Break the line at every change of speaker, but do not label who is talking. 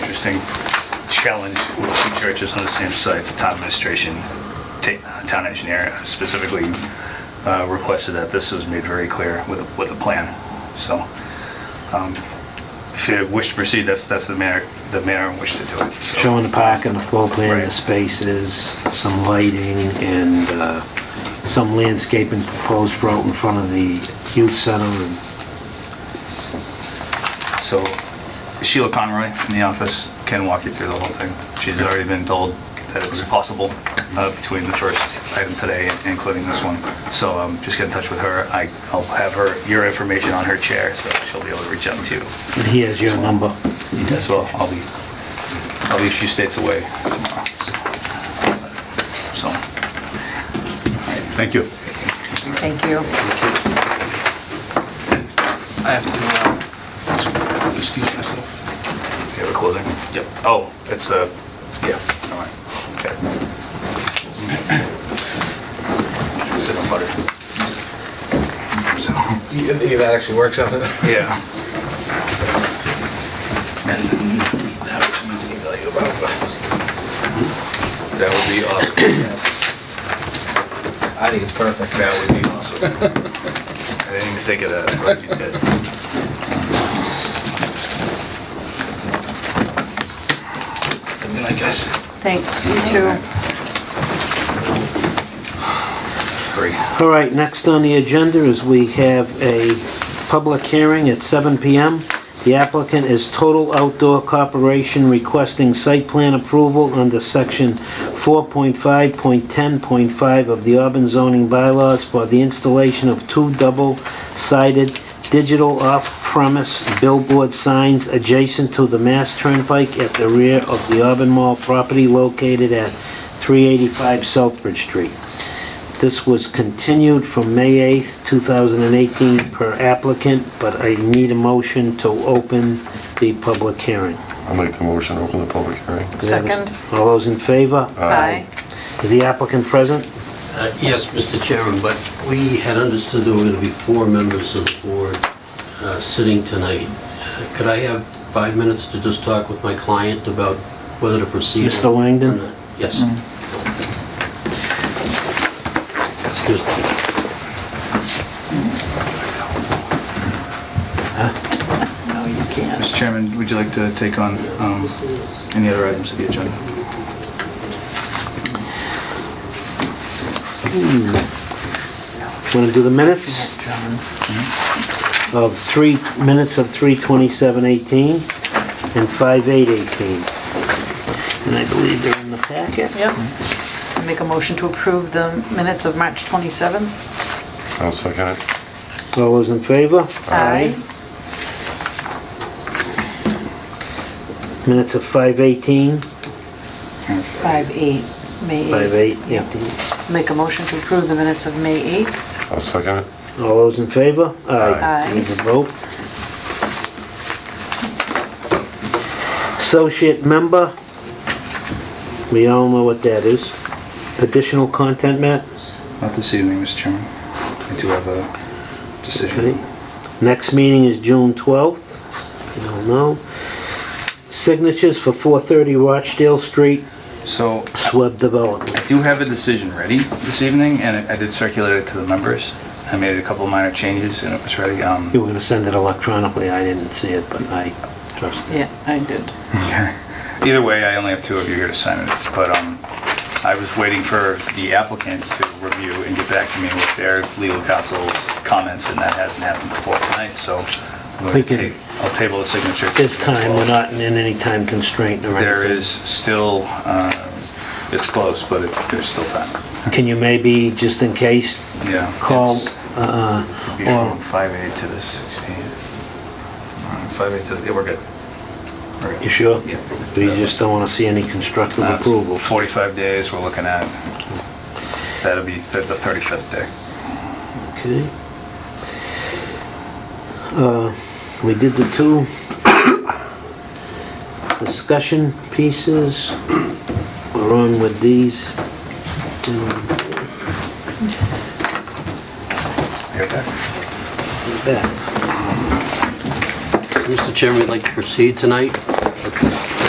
interesting challenge with two churches on the same site. The town administration, ta- uh, town engineer specifically uh, requested that this was made very clear with, with a plan. So um, if you wish to proceed, that's, that's the manner, the manner in which to do it. So-
Showing the park and the floor plan, the
Right.
spaces, some lighting, and uh, some landscaping proposed for out in front of the youth center. and
So Sheila Conroy in the office can walk you through the whole thing. She's already been told that it's possible uh, between the first item today, and including this one. So um, just get in touch with her. I- I'll have her, your information on her chair, so she'll be able to reach out to you
And he has your number.
as well. I'll be, I'll be a few states away tomorrow. So, so,
Thank you.
Thank you.
I have to, uh, excuse myself.
you have a closing?
Yep.
Oh, it's a, yeah, all right. Okay. Sit on butter. So.
You think that actually works out? That
Yeah.
would be the value of our-
Hmm?
That would be awesome. Yes. I think it's perfect.
That would be awesome. I didn't even think of that. I'm glad you did.
And then I guess.
Thanks, you too.
Three.
All right, next on the agenda is we have a public hearing at 7 PM. The applicant is Total Outdoor Corporation requesting site plan approval under section 4.5.10.5 of the Auburn zoning bylaws for the installation of two double-sided digital off-premise billboard signs adjacent to the Mass Turnpike at the rear of the Auburn Mall property located at 385 Southbridge Street. This was continued from May 8th, 2018 per applicant, but I need a motion to open the public hearing.
I'll make the motion, open the public hearing.
Second.
All those in favor?
Aye.
Is the applicant present?
Uh, Yes, Mr. Chairman, but we had understood there were going to be four members of the board uh, sitting tonight. Uh, Could I have five minutes to just talk with my client about whether to proceed?
Mr. Langdon?
or not? Yes. Excuse me.
Mr. Chairman, would you like to take on um, any other items of the agenda?
Want to do the minutes? Mm-hmm. Of three, minutes of 3:27:18 and 5:8:18. And I believe they're in the packet.
Yep. I Make a motion to approve the minutes of March 27th.
I'll second it.
All those in favor? Minutes of 5:18,
5/8, May 8th.
5:8, yeah.
Make a motion to approve the minutes of May 8th.
I'll second it.
All those in favor?
Aye.
Need a vote. Associate member, we all know what that is. Additional content, Matt?
Not this evening, Mr. Chairman. I do have a
Okay.
decision.
Next meeting is June 12th. We all know. Signatures for 430 Rochdale Street,
So
SWEB Development.
I do have a decision ready this evening, and I I did circulate it to the members. I made a couple minor changes, and it was ready. Um,
You were gonna send it electronically, I didn't see it, but I trust it.
Yeah, I did.
Okay. Either way, I only have two of you here to sign it, but um, I was waiting for the applicant to review and get back to me with their legal counsel's comments, and that hasn't happened before tonight, so I'm
We
going to
can-
ta- I'll table the signature.
This time, we're not in any time constraint or anything.
There is still, uh, it's close, but it- there's still time.
Can you maybe, just in case,
Yeah.
call,
it's-
uh,
Be
or,
from 5A to the 16. 5A to, the- yeah, we're good. We're good.
you sure?
Yeah.
We just don't want to see any constructive
Uh,
approval.
45 days we're looking at. That'll be th- the 35th day.
Okay. Uh, We did the two discussion pieces. We're on with these. Gentlemen, back.
Mr. Chairman, would like to proceed tonight.